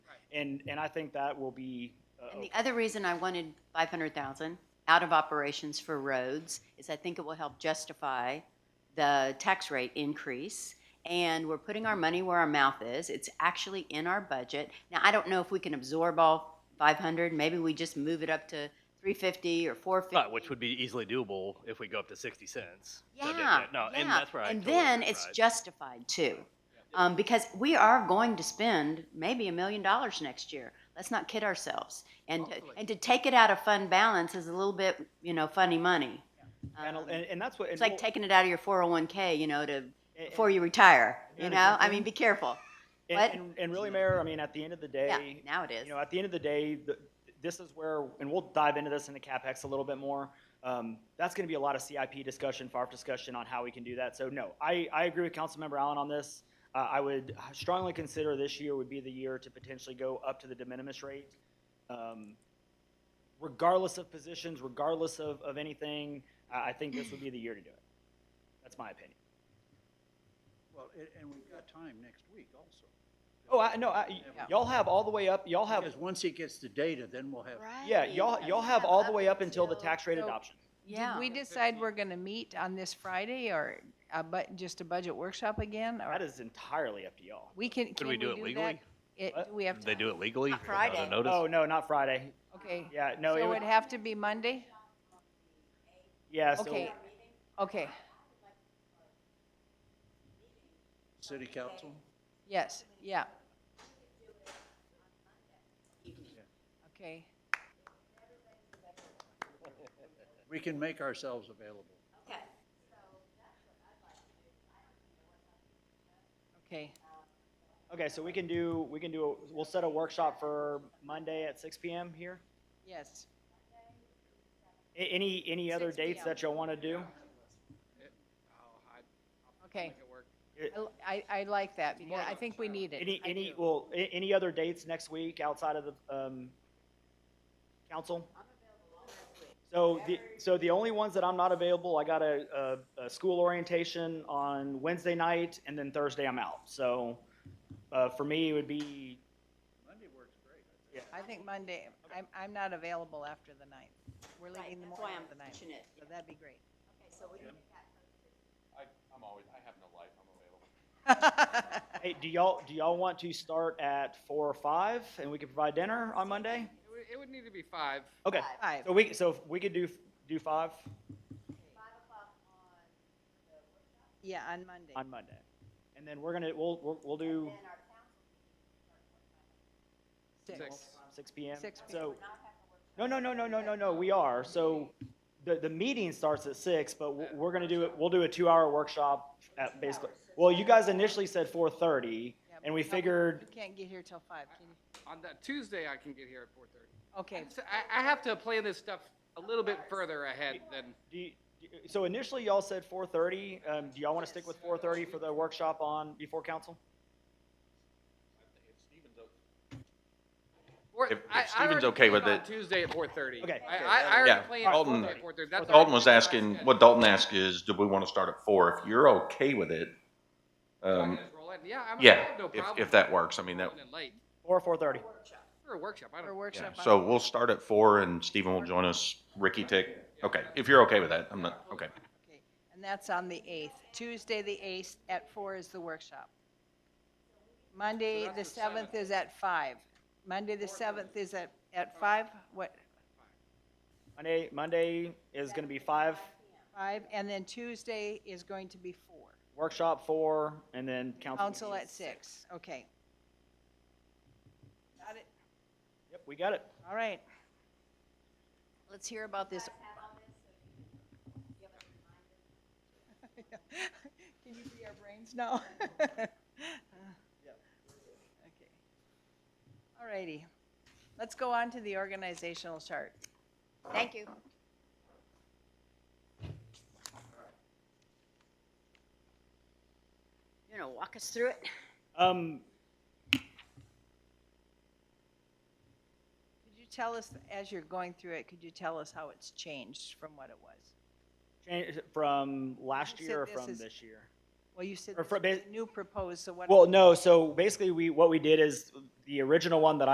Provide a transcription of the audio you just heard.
And, and I think that will be. uh, And the other reason I wanted five hundred thousand out of operations for roads is I think it will help justify the tax rate increase. And we're putting our money where our mouth is. It's actually in our budget. Now, I don't know if we can absorb all five hundred. Maybe we just move it up to three fifty or four fifty. Right, which would be easily doable if we go up to sixty cents. So that- Yeah, No, and yeah. that's where I And totally then agree, it's right. justified too. Um, because we are going to spend maybe a million dollars next year. Let's not kid ourselves. And, and to take it out of fund balance is a little bit, you know, funny money. And, Um, and, and that's what. and It's like we'll- taking it out of your four oh one K, you know, to, and- before you retire, you And- know? I mean, be careful. and- what? And, and really, Mayor, I mean, at the end of the Yeah, day, now it is. you know, at the end of the day, the, this is where, and we'll dive into this in the CapEx a little bit more. Um, that's going to be a lot of CIP discussion, FARF discussion on how we can do that. So no, I, I agree with Councilmember Allen on this. Uh, I would strongly consider this year would be the year to potentially go up to the de minimis rate. Um, regardless of positions, regardless of, of anything, I, I think this would be the year to do it. That's my opinion. Well, and, and we've got time next week also. Oh, I, no, I, y'all have all the way up, y'all have, Because once he gets the data, then we'll have, yeah, y'all, y'all have all the way up until the tax rate So- adoption. Yeah. Did we decide we're gonna meet on this Friday or a bu- just a budget workshop again? That Or is entirely up to y'all. we can, can we we do do it legally? that? It, What? do we have time? They do it legally Not without Friday. a notice? Oh, no, not Friday. Okay. Yeah, no, So it would, it'd have to be Monday? yeah, so, Okay. Okay, city council. yes, yeah. Okay, We can make ourselves available. okay. okay, so we can do, we can do, a- we'll set a workshop for Monday at six PM here? Yes, A- Any, any other 6 dates p.m. that y'all want to do? okay. It- I, I like that because I think we need it. Any, I any, do. well, a- any other dates next week outside of the, um, council? So the, so the only ones that I'm not available, I got a, a, a school orientation on Wednesday night and then Thursday I'm out. So, uh, for me, it would be, Monday works great. I think Monday, I'm, I'm not available after the ninth. We're Right, leaving the that's why morning I'm of the ninth, pushing it. so that'd be great. I, I'm always, I have no life, I'm available. hey, do y'all, do y'all want to start at four or five and we can provide dinner on Monday? It would, it would need to be five. Okay, Five. so we, so if we could do, do five Yeah, on Monday. on Monday. And then we're gonna, we'll, we'll, we'll do Six. six PM. Six So, no, no, no, no, no, no, no, we are. So the, the meeting starts at six, but we're- we're gonna do it, we'll do a two-hour workshop at basically. Well, you guys initially said four thirty Yeah, and we but figured, You can't get here till five, can you? On that Tuesday, I can get here at four thirty. Okay, So I, I have to plan this stuff a little bit further ahead than, do you- do- so initially y'all said four thirty. Um, do y'all wanna stick with four thirty for the workshop on, before council? or, If- if I, I Steven's already okay with planned it- on Tuesday at four thirty. Okay. I, I, I already Yeah, planned on Dalton- Tuesday at four thirty. Dalton was asking, what Dalton asked is, do we want to start at four? If you're okay with it, um, Yeah, I'm, I yeah, have no if, problem. if that works, I mean, that, Rolling in late, Or four thirty? for a workshop, I for don't. yeah. workshop. on- so we'll start at four and Stephen will join us, Ricky Tick. Okay, if you're okay with that, I'm not, okay. okay, And that's on the eighth. Tuesday, the eighth, at four is the workshop. Monday, the seventh is at five. Monday, the seventh is at, at five, what, Monday, Monday is gonna be five, five? And then Tuesday is going to be four. workshop four, and then council. Council meeting at six, okay. Got it, Yep, we got it. all right. Let's hear about this. Can you read our brains now? All righty, let's go on to the organizational chart. Thank you. You're gonna walk us through it? Um, Could you tell us, as you're going through it, could you tell us how it's changed from what it was? change from last You said year or this from is- this year? Well, you said Or this for was ba- a new proposed, so what? Well, no, so basically we, what we did is the original one that I.